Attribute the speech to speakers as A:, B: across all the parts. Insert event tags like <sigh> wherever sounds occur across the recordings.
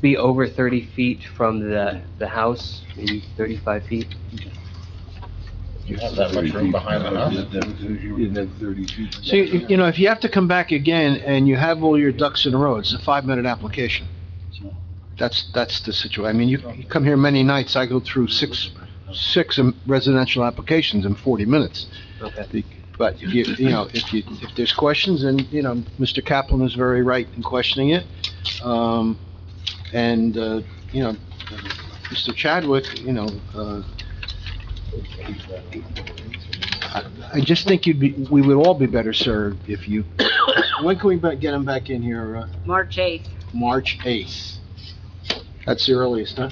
A: be over 30 feet from the, the house, maybe 35 feet.
B: You have that much room behind the house?
C: See, you you know, if you have to come back again and you have all your ducks in a row, it's a five-minute application. That's, that's the situation. I mean, you you come here many nights, I go through six, six residential applications in 40 minutes.
A: Okay.
C: But if you, you know, if you, if there's questions, and, you know, Mr. Kaplan is very right in questioning it. Um, and, uh, you know, Mr. Chadwick, you know, uh, I- I just think you'd be, we would all be better served if you, when can we ba- get him back in here? Uh,
D: March 8th,
C: March 8th. That's the earliest, huh?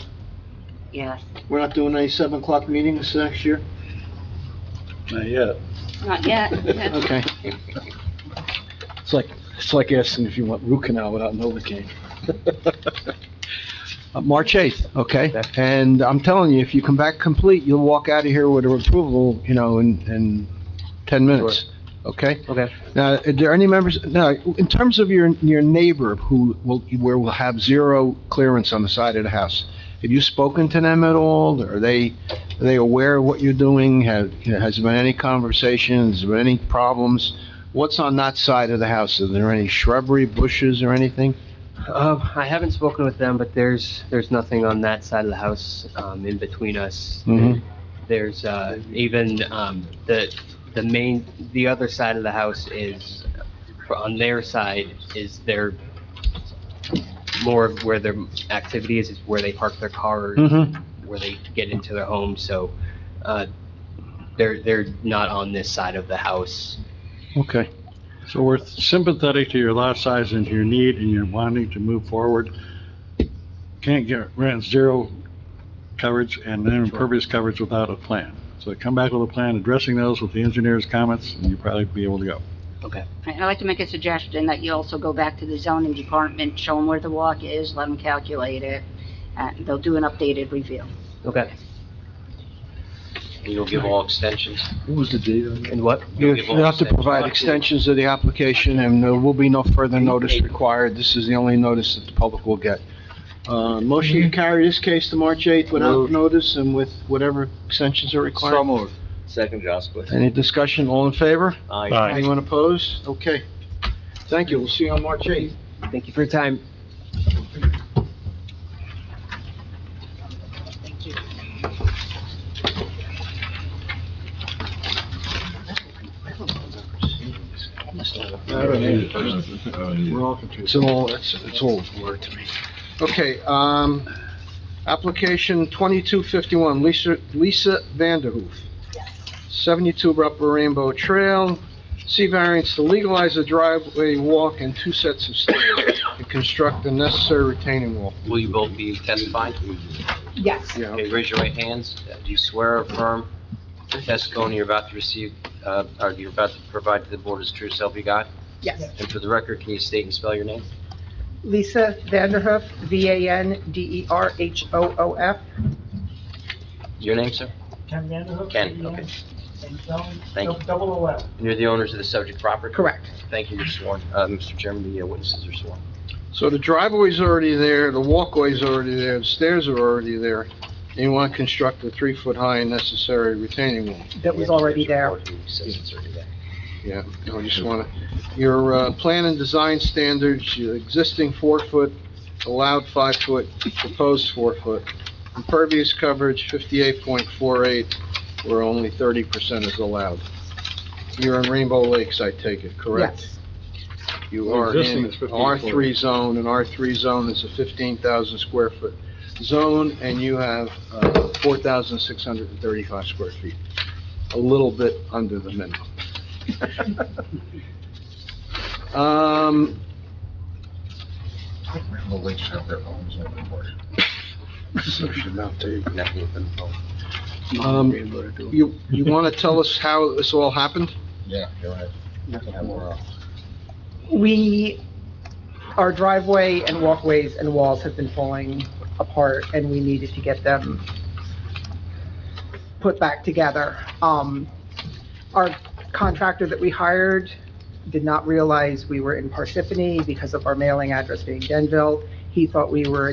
D: yes.
C: We're not doing any 7 o'clock meetings next year?
E: Not yet.
D: Not yet.
C: Okay.
E: It's like, it's like asking if you want root canal without Novocaine.
C: Uh, March 8th, okay?
A: Okay.
C: And I'm telling you, if you come back complete, you'll walk out of here with an approval, you know, in, in 10 minutes, okay?
A: Okay.
C: Now, are there any members, now, in terms of your, your neighbor who will, where will have zero clearance on the side of the house, have you spoken to them at all? Are they, are they aware of what you're doing? Have, has there been any conversations, has there been any problems? What's on that side of the house? Are there any shrubbery, bushes, or anything?
A: Um, I haven't spoken with them, but there's, there's nothing on that side of the house, um, in between us.
C: Mhm.
A: There's, uh, even, um, the, the main, the other side of the house is, on their side is their, more of where their activity is, is where they park their cars,
C: Mm-hmm.
A: where they get into their home, so, uh, they're, they're not on this side of the house.
C: Okay.
F: So we're sympathetic to your lot size and to your need, and you're wanting to move forward. Can't get, grant zero coverage and then impervious coverage without a plan. So come back with a plan addressing those with the engineer's comments, and you'll probably be able to go.
D: I'd like to make a suggestion that you also go back to the zoning department, show them where the walk is, let them calculate it, and they'll do an updated review.
A: Okay.
G: You'll give all extensions?
E: What was the date on that?
A: And what?
C: You you have to provide extensions of the application, and there will be no further notice required. This is the only notice that the public will get. Uh, motion to carry this case to March 8th without
E: Moved.
C: notice and with whatever extensions are required.
G: moved. Second, Jaskowitz.
C: Any discussion? All in favor?
F: Aye.
C: Anyone opposed? Okay. Thank you. We'll see you on March 8th.
A: Thank you for your time.
F: We're all confused.
C: It's all, it's, it's all blurred to me. Okay, um, application 2251, Lisa, Lisa Vanderhoof. 72 Upper Rainbow Trail, C variance to legalize a driveway walk and two sets of stairs and construct the necessary retaining wall.
G: Will you both be testifying?
H: Yes,
C: Yeah,
G: Okay, raise your right hands. Do you swear or affirm the testimony you're about to receive, uh, or you're about to provide to the board is true self you got?
H: yes.
G: And for the record, can you state and spell your name?
H: Lisa Vanderhoof, E V-A-N-D-E-R-H-O-O-F.
G: Your name, sir?
I: Ken Vanderhook?
G: Ken, okay.
I: And Zone
G: Thank you.
I: double eleven.
G: And you're the owners of the subject property?
H: Correct.
G: Thank you, you're sworn. Uh, Mr. Chairman, the uh, witnesses are sworn.
C: so the driveway's already there, the walkway's already there, the stairs are already there, and you want to construct a three-foot-high and necessary retaining wall.
H: That was already there.
G: Says it's already there.
C: Yeah, I just want to, your uh, plan and design standards, your existing four-foot, allowed five-foot, proposed four-foot, impervious coverage 58.48, where only 30% is allowed. You're in Rainbow Lakes, I take it, correct?
H: Yes,
C: You are
F: Existing
C: in
F: is 15.48.
C: R3 zone, and R3 zone is a 15,000 square foot zone, and you have uh, 4,635 square feet, a little bit under the minimum. Um,
B: Rainbow Lakes have their own zoning board.
C: <laughs>
E: So should not take.
G: Nothing with them.
C: um, you, you want to tell us how this all happened?
B: Yeah, you're right. Yeah, we're off.
H: we, our driveway and walkways and walls have been falling apart, and we needed to get them put back together. Um, our contractor that we hired did not realize we were in Parsippany because of our mailing address being Denville. He thought we were